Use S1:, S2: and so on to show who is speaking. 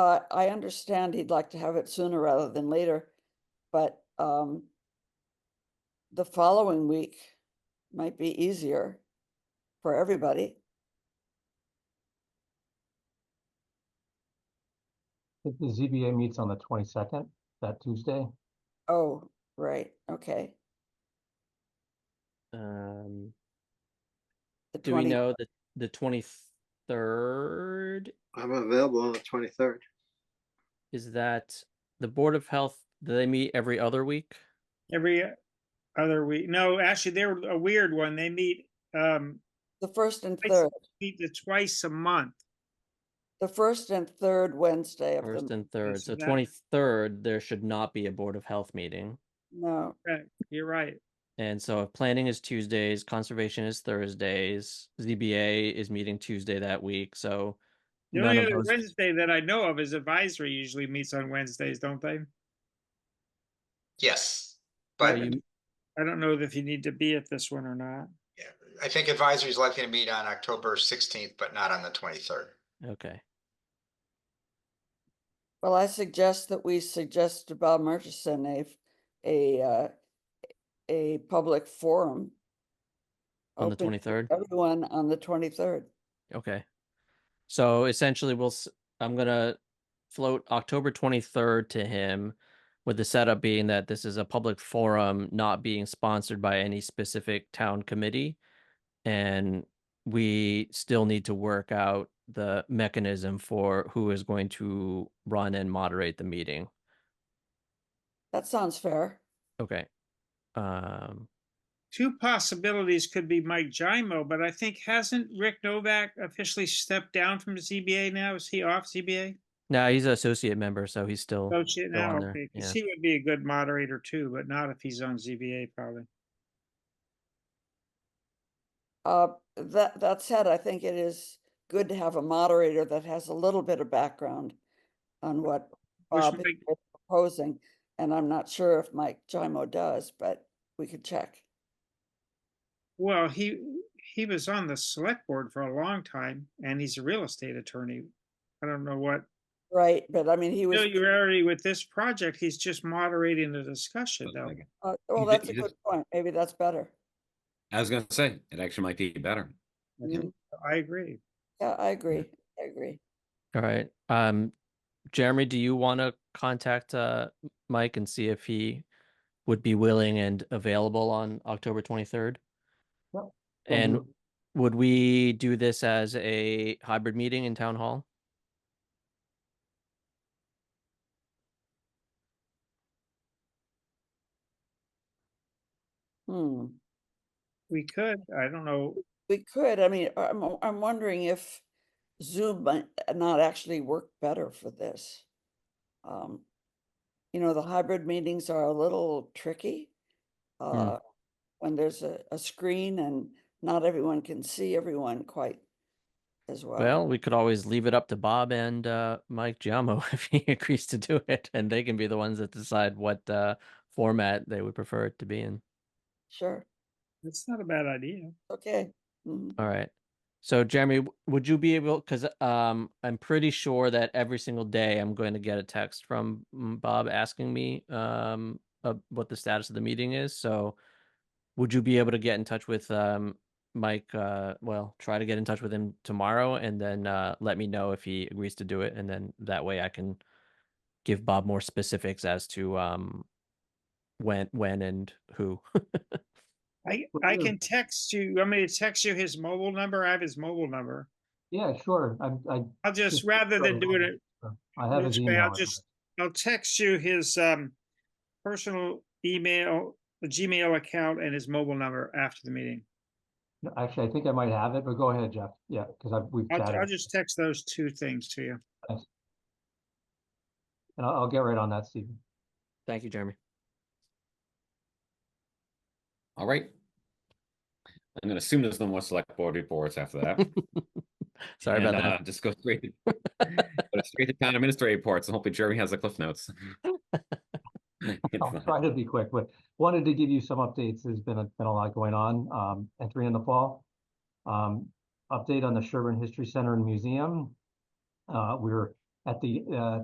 S1: Uh, I understand he'd like to have it sooner rather than later, but, um, the following week might be easier for everybody.
S2: think the ZBA meets on the twenty-second, that Tuesday.
S1: Oh, right, okay.
S3: Um,
S1: The
S3: do we
S1: 20
S3: know the the twenty third?
S4: I'm available on the twenty-third.
S3: Is that the Board of Health? Do they meet every other week?
S5: Every other week. No, actually, they're a weird one. They meet, um,
S1: The first and
S5: I see.
S1: third,
S5: meet the twice a month.
S1: the first and third Wednesday of
S3: First
S1: the,
S3: and third. So
S5: so that-
S3: twenty third, there should not be a Board of Health meeting.
S1: no,
S5: You're right.
S3: And so if planning is Tuesdays, conservation is Thursdays, ZBA is meeting Tuesday that week, so.
S5: The
S3: none
S5: only
S3: of
S5: other
S3: those-
S5: Wednesday that I know of is advisory usually meets on Wednesdays, don't they?
S6: Yes,
S3: so
S6: but
S3: you-
S5: I don't know if you need to be at this one or not.
S6: I think advisory is likely to meet on October sixteenth, but not on the twenty-third.
S3: Okay,
S1: well, I suggest that we suggest to Bob Murchison a, f- a, uh, a public forum.
S3: on the
S1: open
S3: twenty third,
S1: Everyone on the twenty-third.
S3: okay. So essentially, we'll, s- I'm gonna float October twenty third to him. With the setup being that this is a public forum, not being sponsored by any specific town committee. And we still need to work out the mechanism for who is going to run and moderate the meeting.
S1: That sounds fair.
S3: Okay. Um,
S5: Two possibilities could be Mike Jaimo, but I think hasn't Rick Novak officially stepped down from ZBA now? Is he off ZBA?
S3: now he's an associate member, so he's still,
S5: Oh, shit,
S3: go on
S5: now,
S3: there,
S5: okay, 'cause
S3: yeah.
S5: he would be a good moderator too, but not if he's on ZBA probably.
S1: Uh, that, that said, I think it is good to have a moderator that has a little bit of background on what
S5: Which
S1: Bob
S5: might-
S1: is proposing, and I'm not sure if Mike Jaimo does, but we could check.
S5: Well, he, he was on the select board for a long time and he's a real estate attorney. I don't know what,
S1: Right, but I mean, he was,
S5: no, you're already with this project, he's just moderating the discussion
S7: One
S5: though.
S7: second.
S1: uh, well,
S7: you
S1: that's a
S7: did-
S1: good point. Maybe that's better.
S7: I was gonna say, it actually might be better.
S1: Mm,
S5: I agree.
S1: Yeah, I agree. I agree.
S3: all right. Um, Jeremy, do you want to contact, uh, Mike and see if he would be willing and available on October 23rd?
S2: Yep.
S3: And would we do this as a hybrid meeting in town hall?
S1: Hmm.
S5: We could, I don't know,
S1: We could, I mean, I'm, I'm wondering if Zoom might not actually work better for this. Um, You know, the hybrid meetings are a little tricky. uh, When there's a, a screen and not everyone can see everyone quite as well.
S3: Well, we could always leave it up to Bob and uh, Mike Giamo if he agrees to do it, and they can be the ones that decide what uh, format they would prefer it to be in.
S1: Sure,
S5: it's not a bad idea.
S1: okay. mhm.
S3: All right. So, Jeremy, w- would you be able? Because um, I'm pretty sure that every single day I'm going to get a text from mm, Bob asking me um, uh, what the status of the meeting is. So, would you be able to get in touch with um, Mike? Uh, well, try to get in touch with him tomorrow, and then uh, let me know if he agrees to do it, and then that way I can give Bob more specifics as to um, when, when, and who.
S5: I,
S2: Well,
S5: I
S2: yeah.
S5: can text you, want me to text you his mobile number? I have his mobile number.
S2: Yeah, sure, I, I,
S5: I'll just,
S2: Just
S5: rather than
S2: throw it
S5: doing
S2: on.
S5: it
S2: I have his
S5: Which way,
S2: email.
S5: I'll
S2: address.
S5: just- I'll text you his um personal email, the Gmail account and his mobile number after the meeting.
S2: No, Actually, I think I might have it, but go ahead, Jeff, yeah, because I've, we've
S5: I'll, I'll
S2: chatted,
S5: just text those two things to you.
S2: and I'll, I'll get right on that, Stephen.
S3: Thank you, Jeremy.
S7: All right. I'm gonna assume there's no more select board reports after that.
S3: Sorry about
S7: and,
S3: that.
S7: uh, Just go straight. go Straight to town administrator reports, and hopefully Jeremy has the cliff notes. It's uh,
S2: I'll
S7: not-
S2: try to be quick, but wanted to give you some updates. There's been, a- been a lot going on, um, entering in the fall. Um, update on the Sherburne History Center and Museum. Uh, we're at the, uh,